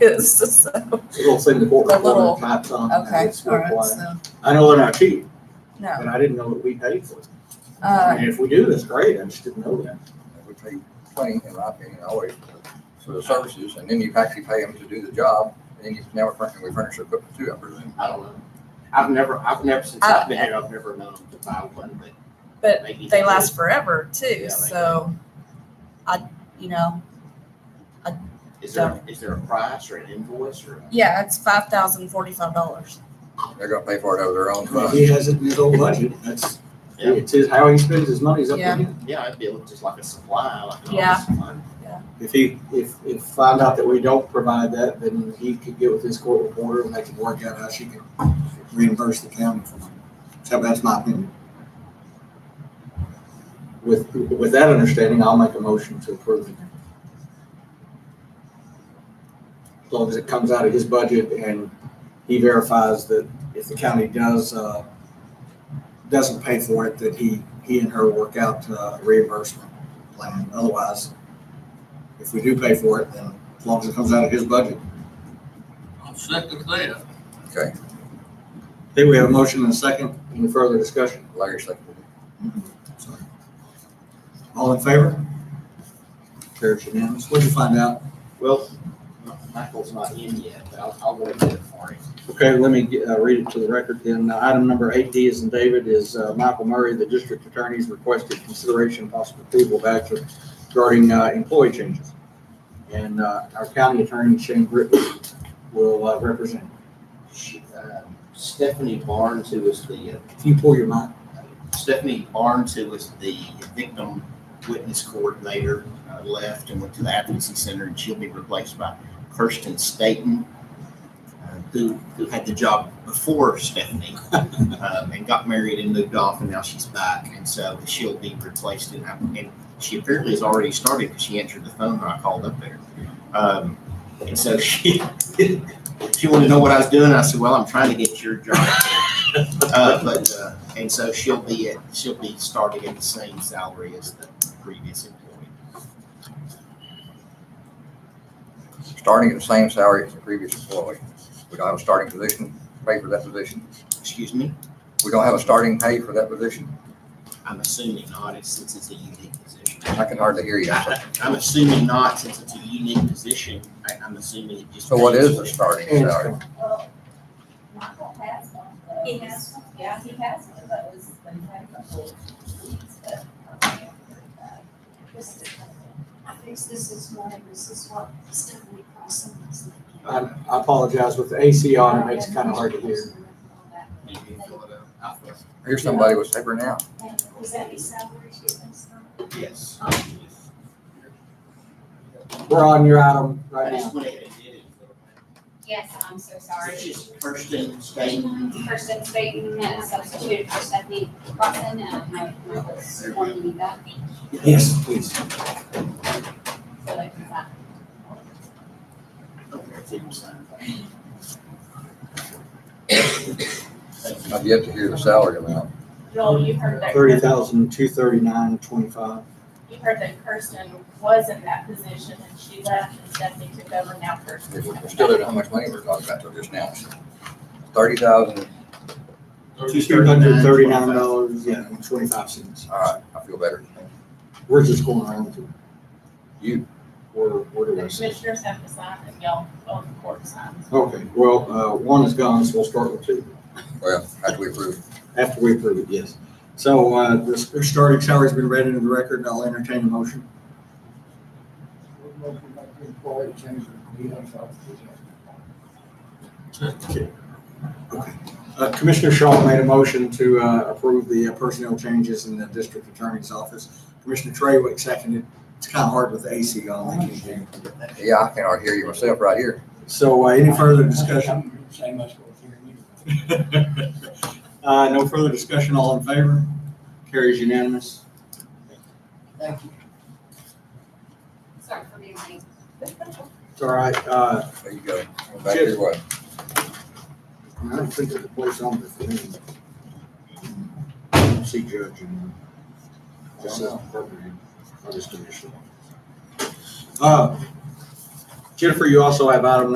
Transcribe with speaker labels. Speaker 1: is, so,
Speaker 2: It'll say the four
Speaker 1: The little-
Speaker 2: corner tops on. there,
Speaker 1: okay,
Speaker 2: it's
Speaker 1: all right,
Speaker 2: required.
Speaker 1: so,
Speaker 2: I know they're not cheap,
Speaker 1: no.
Speaker 2: but I didn't know that we paid for it.
Speaker 1: Uh,
Speaker 2: And if we do, that's great, I just didn't know that.
Speaker 3: Which they pay, in my opinion, always for the services, and then you actually pay them to do the job, and then you, now we're furnishing, we furnish equipment too, I presume.
Speaker 4: I don't know. I've never, I've never, since I've been here, I've never known to buy one, but.
Speaker 1: Uh, But
Speaker 4: maybe
Speaker 1: they
Speaker 4: do.
Speaker 1: last forever too,
Speaker 4: Yeah, they
Speaker 1: so I, you know,
Speaker 4: Is there, is there a price or an invoice or?
Speaker 1: yeah, it's five thousand forty-five dollars.
Speaker 3: They're gonna pay for it out of their own
Speaker 2: Well,
Speaker 3: funds.
Speaker 2: He has it in his own budget, that's,
Speaker 4: Yeah.
Speaker 2: it's his, how he spends his money is up to
Speaker 1: Yeah.
Speaker 2: him.
Speaker 4: Yeah, it'd be just like a supply, like an
Speaker 1: Yeah.
Speaker 4: office supply.
Speaker 2: If he, if, if find out that we don't provide that, then he could get with his court reporter and they could work out how she can reimburse the county for it. So that's my opinion. With, with that understanding, I'll make a motion to approve it. As long as it comes out of his budget and he verifies that if the county does, uh, doesn't pay for it, that he, he and her work out uh, reimbursement plan. Otherwise, if we do pay for it, then as long as it comes out of his budget.
Speaker 5: I'll second that.
Speaker 3: Okay,
Speaker 2: Okay, we have a motion and a second. Any further discussion?
Speaker 3: Larry seconded
Speaker 2: Sorry. All in favor? Carries unanimous. What'd you find out?
Speaker 4: Well, Michael's not in yet, but I'll, I'll go and get it for him.
Speaker 2: Okay, let me get- uh, read it to the record then. Uh, Item number eight D is in David is uh, Michael Murray, the district attorney's requested consideration and possible approval of action regarding uh, employee changes. And uh, our county attorney, Shane Britton, will uh, represent.
Speaker 4: She- uh, Stephanie Barnes, who was the,
Speaker 2: If you pull your mic,
Speaker 4: uh, Stephanie Barnes, who was the victim witness coordinator, uh, left and went to the advocacy center, and she'll be replaced by Kirsten Staten, uh, who, who had the job before Stephanie, um, and got married and moved off, and now she's back, and so she'll be replaced, and, I- and she apparently has already started, because she answered the phone when I called up there. Um, and so she, she wanted to know what I was doing, and I said, well, I'm trying to get your job. Uh, but, uh, and so she'll be at, she'll be starting at the same salary as the previous employee.
Speaker 3: it. Starting at the same salary as the previous employee. We don't have a starting position, pay for that position.
Speaker 4: Excuse me?
Speaker 3: We don't have a starting pay for that position.
Speaker 4: I'm assuming not, it's- since it's a unique position.
Speaker 3: I can hardly hear you.
Speaker 4: I- I'm assuming not, since it's a unique position. I, I'm assuming it just.
Speaker 3: So what
Speaker 4: pays
Speaker 3: is
Speaker 4: what
Speaker 3: the
Speaker 4: it-
Speaker 3: starting salary?
Speaker 6: Well, Michael has one. He has one? Yeah, he has one of those. They had a couple of weeks, but I can't remember that.
Speaker 7: This is- I think this is what, this is what Stephanie Carson was
Speaker 2: I I apologize with the AC on, it makes it kind of hard to hear.
Speaker 4: You can fill it out. I feel-
Speaker 3: Here's somebody with paper now.
Speaker 7: And was that his salary she was on?
Speaker 4: Yes.
Speaker 2: We're on your item
Speaker 4: I
Speaker 2: right
Speaker 4: just
Speaker 2: now.
Speaker 4: went ahead and did it.
Speaker 6: Yes, I'm so sorry.
Speaker 4: It's just Kirsten Staten.
Speaker 6: Kirsten Staten has substituted for Stephanie Watson and I was wanting to do that.
Speaker 2: Yes, please.
Speaker 6: So like that.
Speaker 4: Okay, it's even signed. Thank you.
Speaker 3: I've yet to hear the salary amount.
Speaker 8: Joel, you heard that,
Speaker 2: Thirty thousand, two thirty-nine, twenty-five.
Speaker 8: you heard that Kirsten was in that position and she left and Stephanie took over now Kirsten.
Speaker 3: We're still at how much money we're talking about till just now. Thirty thousand,
Speaker 2: Two hundred thirty-nine dollars, yeah, and twenty-five cents.
Speaker 3: all right, I feel better.
Speaker 2: Where's this going around to?
Speaker 3: You,
Speaker 2: Where, where
Speaker 8: The
Speaker 2: do I see?
Speaker 8: commissioners have to sign and y'all, both the court signs.
Speaker 2: Okay, well, uh, one is gone, so we'll start with two,
Speaker 3: well, after we approve.
Speaker 2: after we approve it, yes. So, uh, the starting salary's been read into the record, and I'll entertain a motion. Uh, Commissioner Shaw made a motion to uh, approve the uh, personnel changes in the district attorney's office. Commissioner Trawick seconded. It's kind of hard with the AC on. I can't hear.
Speaker 3: Yeah, I can hardly hear you myself right here.
Speaker 2: So uh, any further discussion?
Speaker 9: Same as what we're hearing you.
Speaker 2: Uh, no further discussion, all in favor? Carries unanimous.
Speaker 6: Sorry for being late.
Speaker 2: It's all right, uh,
Speaker 3: There you go. Back your way.
Speaker 2: I don't think there's a place on the thing. See judge and. This is appropriate, or this commission. Uh, Jennifer, you also have item